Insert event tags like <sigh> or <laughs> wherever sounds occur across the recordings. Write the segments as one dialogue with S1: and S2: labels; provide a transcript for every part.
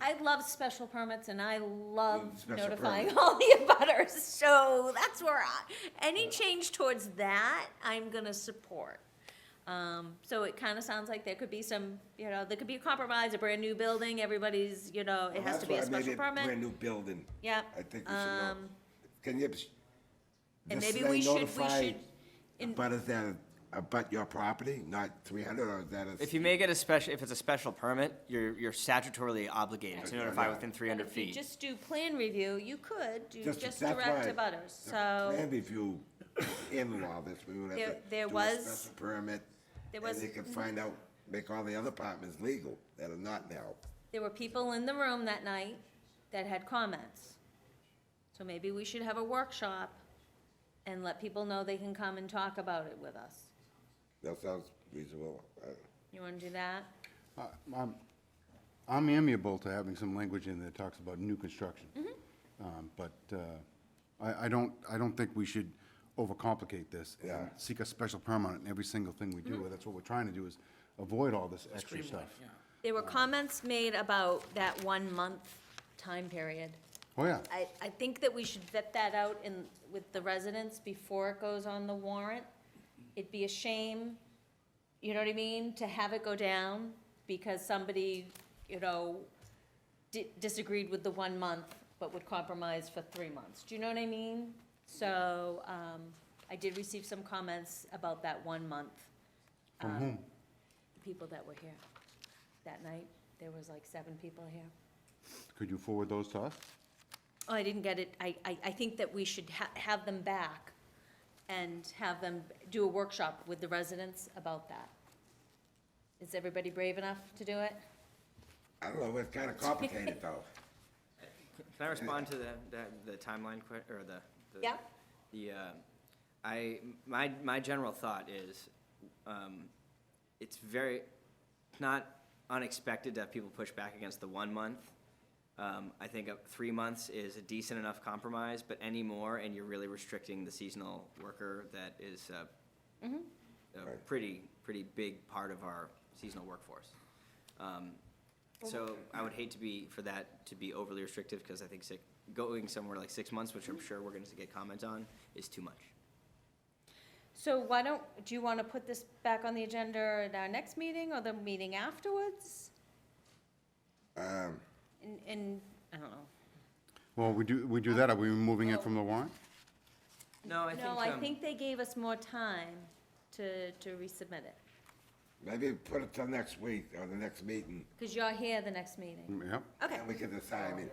S1: I love special permits and I
S2: Mm,
S1: love
S2: special
S1: notifying <laughs>
S2: permit.
S1: all the abutters, so that's where I, any change towards that, I'm gonna support. Um, so it kinda sounds like there could be some, you know, there could be a compromise, a brand new building, everybody's, you know, it has
S2: That's
S1: to be
S2: why
S1: a
S2: I made
S1: special
S2: it Brand
S1: permit.
S2: new building.
S1: Yep.
S2: I think we should know.
S1: Um,
S2: Can you?
S1: And
S2: this
S1: maybe
S2: thing
S1: we should, we
S2: notify
S1: should, in-
S2: But is that about your property, not three hundred, or is that a?
S3: If you make it a special, if it's a special permit, you're, you're statutorily obligated to
S2: Yeah.
S3: notify within three
S1: but
S3: hundred
S1: if you
S3: feet.
S1: just do plan review, you could do
S2: Just-
S1: just
S2: that's
S1: direct
S2: why
S1: abutters,
S2: the
S1: so.
S2: Plan review in all this, we would
S1: Oh. There-
S2: have to.
S1: there
S2: do a
S1: was-
S2: special Permit.
S1: there was-
S2: And they could find out, make all the other apartments legal that are not now.
S1: There were people in the room that night that had comments. So maybe we should have a workshop and let people know they can come and talk about it with us.
S2: That sounds reasonable. Uh,
S1: You wanna do that?
S4: I- I'm, I'm amiable to having some language in there that talks about new construction. Um, But uh, I, I don't, I don't think we should overcomplicate this and
S2: Yeah.
S4: seek a special permit in every single thing we do. That's what we're trying to do, is avoid all this extra stuff.
S1: There were comments made about that one-month time period.
S4: Oh, yeah.
S1: I, I think that we should vet that out in, with the residents before it goes on the warrant. It'd be a shame, you know what I mean, to have it go down because somebody, you know, di- disagreed with the one month, but would compromise for three months. Do you know what I mean? So, um, I did receive some comments about that one month. From whom? The people that were here. That night, there was like seven people here.
S4: Could you forward those to us?
S1: Oh, I didn't get it. I, I, I think that we should ha- have them back and have them do a workshop with the residents about that. Is everybody brave enough to do it?
S2: I don't know, it's kinda
S1: <laughs>
S2: complicated though.
S3: Can I respond to the, the, the timeline que, or the? the-
S1: Yeah.
S3: The, uh, I, my, my general thought is, um, it's very, not unexpected to have people push back against the one month. Um, I think uh, three months is a decent enough compromise, but any more, and you're really restricting the seasonal worker that is, uh, a pretty, pretty big part of our seasonal workforce. Um, So I would hate to be, for that to be overly restrictive, because I think six, going somewhere like six months, which I'm sure we're gonna get comment on, is too much.
S1: So why don't, do you want to put this back on the agenda at our next meeting or the meeting afterwards?
S2: Um,
S1: And, and, I don't know.
S4: Well, we do, we do that, are we removing it from the warrant?
S3: No, I think,
S1: No, I
S3: um,
S1: think they gave us more time to, to resubmit it,
S2: maybe put it till next week or the next meeting,
S1: because you're here the next meeting.
S4: Mm, Yep.
S1: Okay,
S2: and we can decide, I mean,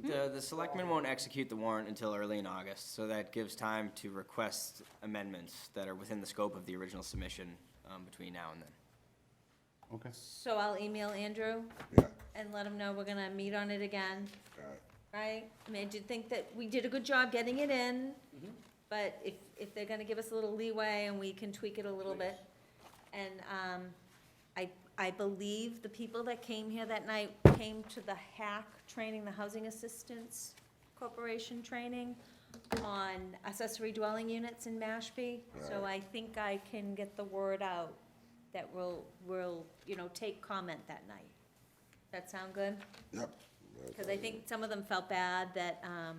S1: hmm?
S3: The, the selectmen won't execute the warrant until early in August, so that gives time to request amendments that are within the scope of the original submission, um, between now and then.
S4: Okay.
S1: so I'll email Andrew
S2: yeah,
S1: and let him know we're gonna meet on it again.
S2: uh,
S1: right? I mean, I do think that we did a good job getting it in, but if, if they're gonna give us a little leeway and we can tweak it a little bit. And, um, I, I believe the people that came here that night came to the hack training, the Housing Assistance Corporation training on accessory dwelling units in Mashpee, so I think I can get the word out that we'll, we'll, you know, take comment that night. That sound good?
S2: yep.
S1: Because I think some of them felt bad that, um,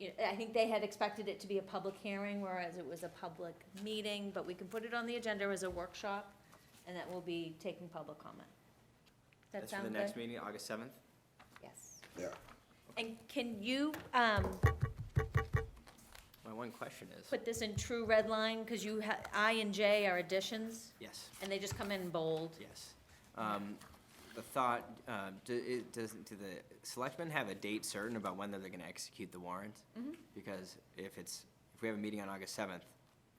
S1: you know, I think they had expected it to be a public hearing, whereas it was a public meeting, but we can put it on the agenda as a workshop, and that will be taking public comment. Does that
S3: That's for the
S1: sound
S3: next
S1: good?
S3: meeting, August seventh?
S1: Yes.
S2: Yeah,
S1: And can you, um,
S3: My one question is,
S1: put this in true red line, because you ha, I and J are additions,
S3: yes.
S1: and they just come in bold.
S3: Yes. Um, The thought, uh, do it- does, do the selectmen have a date certain about when they're going to execute the warrant? Because if it's, if we have a meeting on August 7th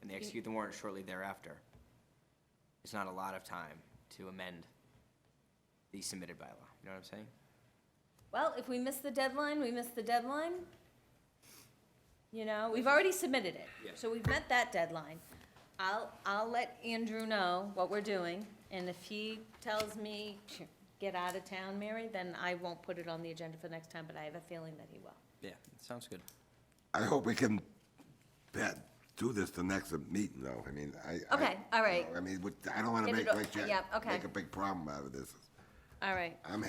S3: and they execute the warrant shortly thereafter, it's not a lot of time to amend the submitted bylaw. You know what I'm saying?
S1: Well, if we miss the deadline, we miss the deadline. You know, we've already submitted it,
S3: Yeah.
S1: so we've met that deadline. I'll, I'll let Andrew know what we're doing, and if he tells me, "Phew, get out of town, Mary, then I won't put it on the agenda for next time, but I have a feeling that he will.
S3: Yeah, sounds good.
S2: I hope we can, Pat, do this the next meeting though, I mean, I. I-
S1: Okay, all right.
S2: I mean, with- I don't wanna
S1: Get
S2: make
S1: it o-
S2: like,
S1: yeah, okay.
S2: make a big problem out of this.
S1: All right.
S2: I'm